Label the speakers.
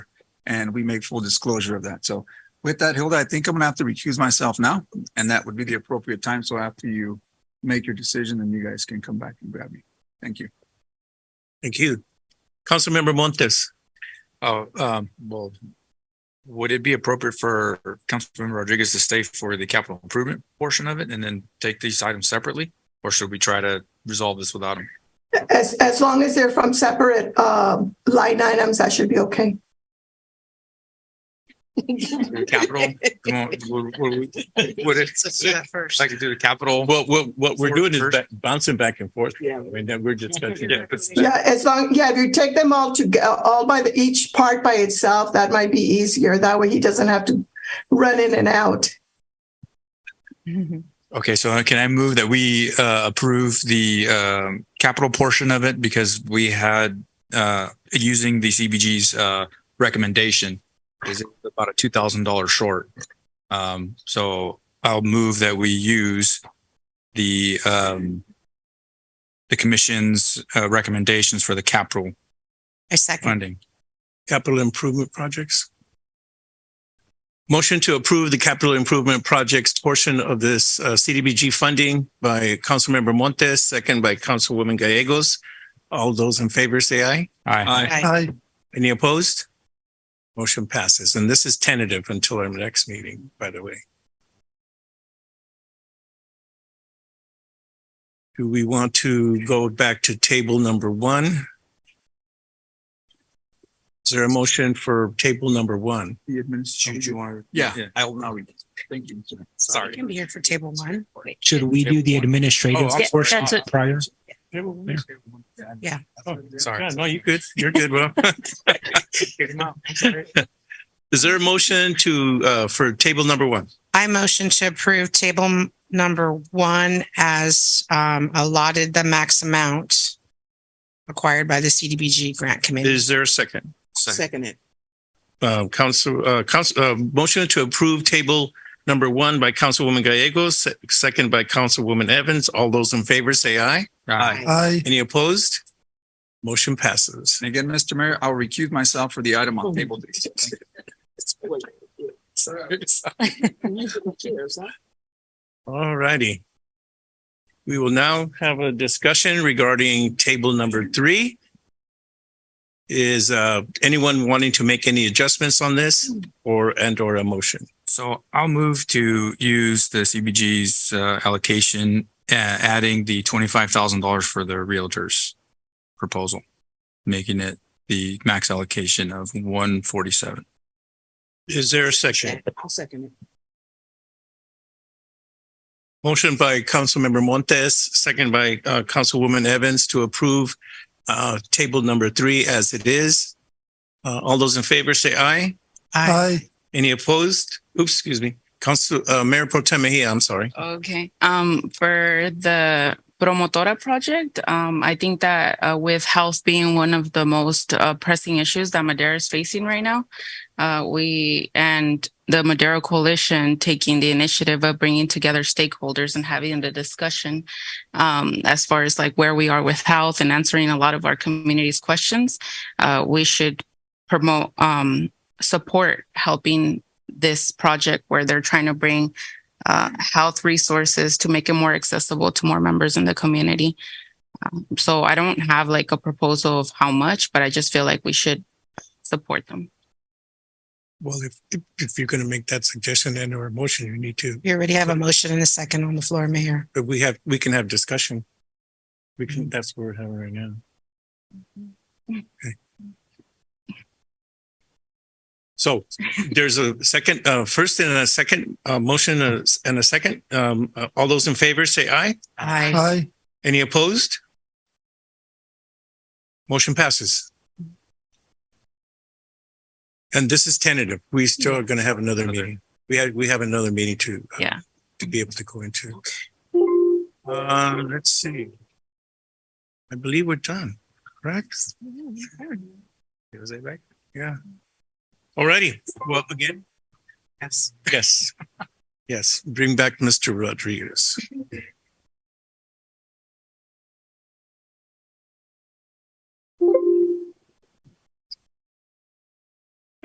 Speaker 1: and we make full disclosure of that. So with that, Hilda, I think I'm gonna have to recuse myself now, and that would be the appropriate time. So after you make your decision, then you guys can come back and grab me. Thank you.
Speaker 2: Thank you. Councilmember Montes,
Speaker 3: Oh, um, well, would it be appropriate for Councilmember Rodriguez to stay for the capital improvement portion of it and then take these items separately? Or should we try to resolve this without him?
Speaker 4: As, as long as they're from separate um, line items, that should be okay.
Speaker 3: Capital? Come on, Would would- would it, like to do the capital?
Speaker 2: what, what, what we're
Speaker 3: Forward
Speaker 2: doing is
Speaker 3: first.
Speaker 2: ba- bouncing back and forth. Yeah. I mean, that we're discussing.
Speaker 3: Yeah, it's-
Speaker 4: Yeah, as long, yeah, if you take them all to, all by the, each part by itself, that might be easier. That way he doesn't have to run in and out.
Speaker 3: Okay, so uh, can I move that we uh, approve the um, capital portion of it because we had, uh, using the CBG's uh, recommendation, is it about a $2,000 short? Um, So I'll move that we use the, um, the commission's uh, recommendations for the capital
Speaker 5: I second.
Speaker 3: funding.
Speaker 2: Capital improvement projects. Motion to approve the capital improvement projects portion of this uh, CDBG funding by Councilmember Montes, second by Councilwoman Gallegos. All those in favor say aye.
Speaker 3: Aye.
Speaker 5: Aye.
Speaker 2: Any opposed? Motion passes. And this is tentative until our next meeting, by the way. Do we want to go back to table number one? Is there a motion for table number one?
Speaker 1: The administration.
Speaker 3: want?
Speaker 1: Yeah,
Speaker 3: Yeah.
Speaker 1: I will now read. Thank you. sir.
Speaker 5: I
Speaker 3: Sorry.
Speaker 5: can be here for table one.
Speaker 6: Should we do the
Speaker 3: Oh,
Speaker 6: administrative
Speaker 3: I'm
Speaker 6: portion
Speaker 3: sorry.
Speaker 6: prior?
Speaker 5: Yeah.
Speaker 3: Sorry.
Speaker 2: Yeah, no, you're good. You're good, Well, Is there a motion to, uh, for table number one?
Speaker 5: I motion to approve table m- number one as um, allotted the max amount required by the CDBG grant committee.
Speaker 2: Is there a second?
Speaker 5: Second it.
Speaker 2: Uh, council, uh, council, uh, motion to approve table number one by Councilwoman Gallegos, se- second by Councilwoman Evans. All those in favor say aye.
Speaker 3: Aye.
Speaker 2: Any opposed? Motion passes.
Speaker 1: And again, Mr. Mayor, I'll recuse myself for the item on table D.
Speaker 2: All righty. We will now have a discussion regarding table number three. Is, uh, anyone wanting to make any adjustments on this or, and or a motion?
Speaker 3: So I'll move to use the CBG's uh, allocation, uh, adding the twenty-five thousand dollars for the realtors proposal, making it the max allocation of one forty-seven.
Speaker 2: Is there a second?
Speaker 5: I'll second it.
Speaker 2: Motion by Councilmember Montes, second by uh, Councilwoman Evans to approve uh, table number three as it is. Uh, All those in favor say aye.
Speaker 5: Aye.
Speaker 2: Any opposed? Oops, excuse me. Council, uh, Mayor Pro Tem Mejia, I'm sorry.
Speaker 7: Okay, um, for the Promotora project, um, I think that uh, with health being one of the most uh, pressing issues that Madera is facing right now, uh, we and the Madera Coalition taking the initiative of bringing together stakeholders and having the discussion um, as far as like where we are with health and answering a lot of our community's questions. Uh, we should promote, um, support helping this project where they're trying to bring uh, health resources to make it more accessible to more members in the community. Um, so I don't have like a proposal of how much, but I just feel like we should support them.
Speaker 8: Well, if, if- if you're going to make that suggestion and or motion, you need to,
Speaker 5: You already have a motion and a second on the floor, Mayor.
Speaker 2: But we have, we can have discussion. We can, that's what we're having right now. Okay. So there's a second, uh, first and a second, uh, motion uh, and a second. Um, uh, all those in favor say aye.
Speaker 5: Aye.
Speaker 2: Any opposed? Motion passes. And this is tentative. We still are going to have another
Speaker 3: Another.
Speaker 2: meeting. We had, we have another meeting to. uh,
Speaker 7: Yeah.
Speaker 2: To be able to go into. Uh, let's see. I believe we're done, correct? Was it right? Yeah. Alrighty. Well, again. Yes. Yes. Yes. Bring back Mr. Rodriguez.